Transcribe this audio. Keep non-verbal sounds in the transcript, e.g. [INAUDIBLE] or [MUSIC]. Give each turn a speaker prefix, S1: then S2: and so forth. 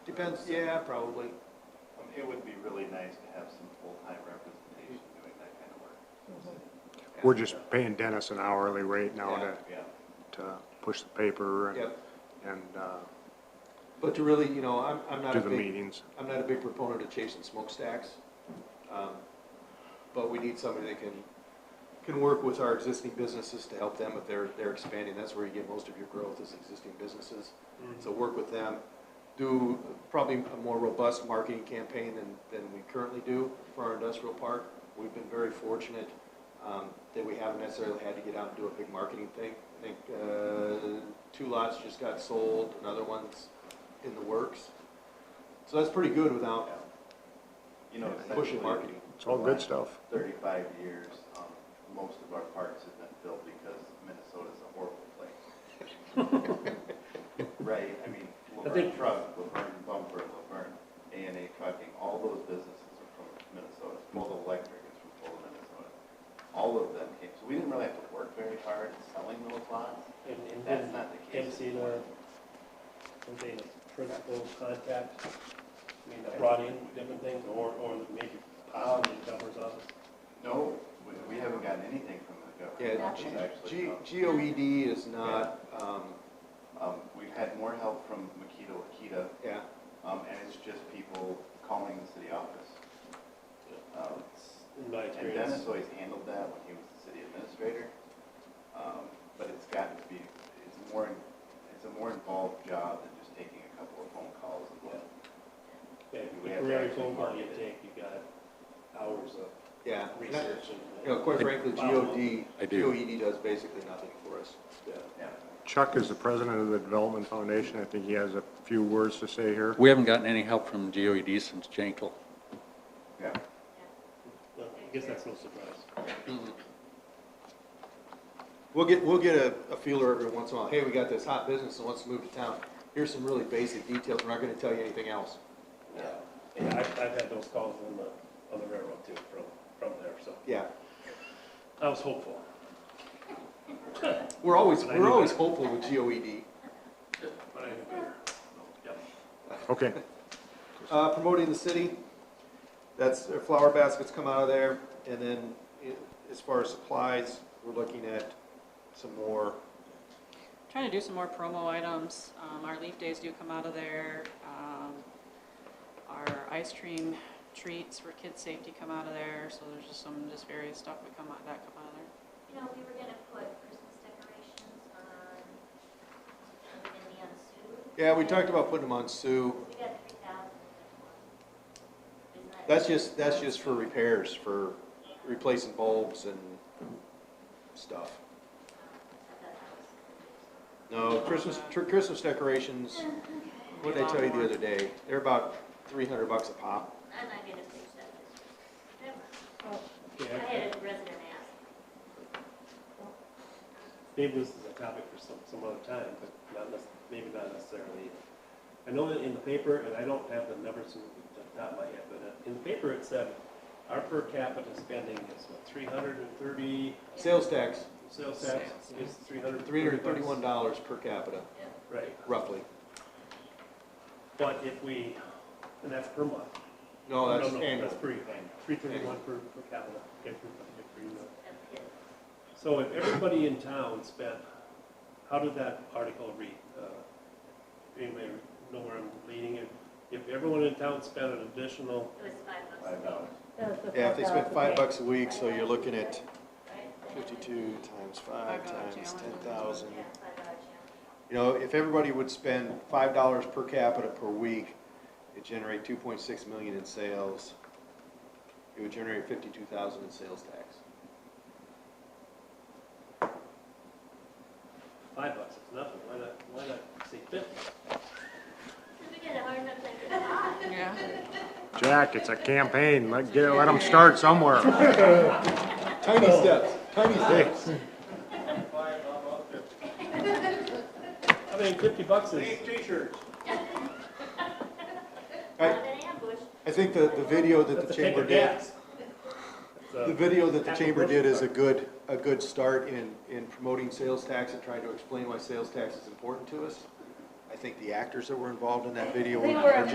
S1: Depends, yeah, probably.
S2: I mean, It would be really nice to have some full-time representation doing that kind of work.
S3: We're just paying Dennis an hourly rate now
S1: Yeah.
S3: to,
S2: Yeah.
S3: to push the paper and,
S1: Yep.
S3: and uh,
S1: But to really, you know, I'm, I'm not
S3: do
S1: a
S3: the
S1: big,
S3: meetings.
S1: I'm not a big proponent of chasing smokestacks. Um, But we need somebody that can, can work with our existing businesses to help them if they're, they're expanding. That's where you get most of your growth is existing businesses. So work with them, do probably a more robust marketing campaign than, than we currently do for our industrial park. We've been very fortunate um, that we haven't necessarily had to get out and do a big marketing thing. I think uh, two lots just got sold, another one's in the works. So that's pretty good without
S2: yeah. You know,
S1: pushing
S2: essentially,
S1: marketing.
S3: It's all good stuff.
S2: thirty-five years, um, most of our parks have been filled because Minnesota's a horrible
S3: [LAUGHS]
S2: place. Right, I mean, Laverne
S4: think-
S2: Truck, Laverne Bumper, Laverne A and A Trucking, all those businesses are from Minnesota. Full Electric is from Full, Minnesota. All of them came, so we didn't really have to work very hard selling those lots.
S4: And, and
S2: That's
S4: then
S2: not the case.
S4: Emcee, something, a principal contact, I mean, that brought in different things, or, or maybe possibly governor's office.
S2: No, we, we haven't gotten anything from the
S1: Yeah,
S2: government.
S1: G-
S2: It's actually
S1: G-
S2: come.
S1: GOED is not, um,
S2: Um, we've had more help from Makita Wakita,
S1: yeah,
S2: um, and it's just people calling the city office. Um,
S4: In my
S2: And Dennis
S4: experience,
S2: always handled that when he was the city administrator. Um, but it's gotten to be, it's more, it's a more involved job than just taking a couple of phone calls and what.
S4: yeah,
S2: we have to
S4: every
S2: actually
S4: phone call you
S2: market
S4: take, you got hours of
S1: yeah. And I-
S4: research
S1: You know,
S4: and.
S1: quite frankly, E GOD,
S5: I do.
S1: GOED does basically nothing for us.
S2: Yeah.
S3: Chuck is the president of the Development Foundation. I think he has a few words to say here.
S5: We haven't gotten any help from GOED since Jankel.
S2: Yeah.
S4: Well, I guess that's no surprise.
S1: We'll get, we'll get a, a feeler every once in a while, hey, we got this hot business that wants to move to town, here's some really basic details, we're not gonna tell you anything else.
S4: Yeah, and I've, I've had those calls on the, on the railroad too, from, from there, so
S1: Yeah,
S4: I was hopeful.
S1: we're always,
S4: But I
S1: we're
S4: knew
S1: always
S4: that.
S1: hopeful with E GOED.
S4: But I knew better. Yep.
S3: Okay,
S1: Uh, promoting the city, that's, their flower baskets come out of there, and then i- as far as supplies, we're looking at some more,
S6: Trying to do some more promo items. Um, our leaf days do come out of there. Um, our ice cream treats for kids' safety come out of there. So there's just some just various stuff that come out that come out of there.
S7: You know, we were gonna put Christmas decorations on, are we gonna be on Sue?
S1: yeah, we talked about putting them on Sue,
S7: We got three thousand in that one. Isn't that?
S1: That's just, that's just for repairs, for replacing bulbs and stuff.
S7: I thought that was-
S1: No, Christmas, tr- Christmas decorations, what did I tell you the other day? They're about three hundred bucks a pop.
S7: I'm not gonna fix that this year. Never mind.
S4: Okay,
S7: I
S4: I-
S7: had a resident ask.
S4: Maybe this is a topic for some, some other time, but not necess, maybe not necessarily. I know that in the paper, and I don't have the numbers from the top of my head, but uh, in the paper it said our per capita spending is what, three hundred and thirty,
S1: Sales tax,
S4: sales tax is three hundred.
S1: three hundred thirty-one dollars per capita,
S4: Right,
S1: roughly.
S4: but if we, and that's per month.
S1: No, Oh, that's
S4: No, no,
S1: annual.
S4: That's per, three thirty-one per, per capita, okay, per, per unit.
S7: That's good.
S4: So if everybody in town spent, how did that article read? Uh, Anybody know where I'm leading it? If everyone in town spent an additional,
S7: It was five bucks.
S2: Five dollars.
S1: Yeah, if they spend five bucks a week, so you're looking at
S7: Right?
S1: fifty-two times five
S6: $5
S1: times ten
S6: challenge.
S1: thousand.
S7: Yeah, five dollar challenge.
S1: You know, if everybody would spend five dollars per capita per week, it'd generate two point six million in sales. It would generate fifty-two thousand in sales tax.
S4: five bucks is nothing, why not, why not say fifty?
S7: We got a hard enough time getting by.
S6: Yeah.
S3: Jack, it's a campaign. Let, get, let them start somewhere.
S1: Tiny steps, tiny steps.
S4: I mean, fifty bucks is,
S1: I,
S7: Not an ambush.
S1: I think the, the video that
S4: that's
S1: the
S4: a tank
S1: chamber
S4: of
S1: did,
S4: gas.
S1: the video that the chamber did is a good, a good start in, in promoting sales tax and trying to explain why sales tax is important to us. I think the actors that were involved in that video were
S7: They were